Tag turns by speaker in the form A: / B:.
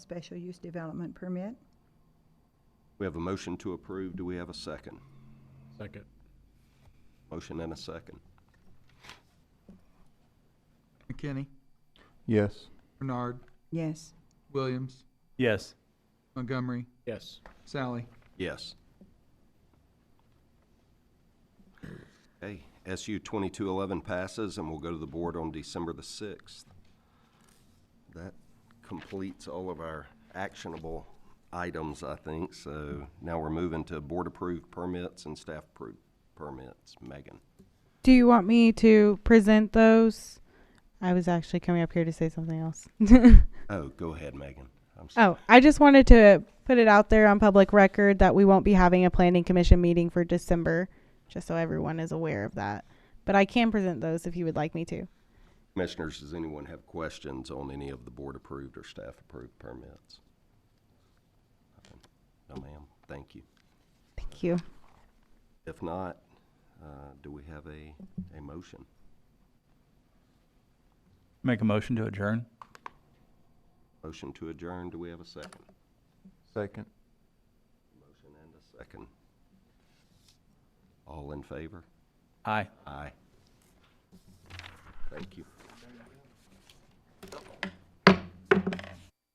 A: special use development permit.
B: We have a motion to approve. Do we have a second?
C: Second.
B: Motion and a second.
D: McKinney,
E: Yes.
D: Bernard,
A: Yes.
D: Williams,
E: Yes.
D: Montgomery,
C: Yes.
D: Sally.
B: Yes. Okay, SU 2211 passes and will go to the board on December the 6th. That completes all of our actionable items, I think. So now we're moving to board-approved permits and staff-approved permits. Megan?
F: Do you want me to present those? I was actually coming up here to say something else.
B: Oh, go ahead, Megan. I'm sorry.
F: oh, I just wanted to put it out there on public record that we won't be having a planning commission meeting for December, just so everyone is aware of that. But I can present those if you would like me to.
B: Commissioners, does anyone have questions on any of the board-approved or staff-approved permits? No, ma'am. Thank you.
F: Thank you.
B: If not, uh, do we have a, a motion?
E: Make a motion to adjourn.
B: Motion to adjourn, do we have a second?
E: Second.
B: Motion and a second. All in favor?
E: Aye.
B: Aye. Thank you.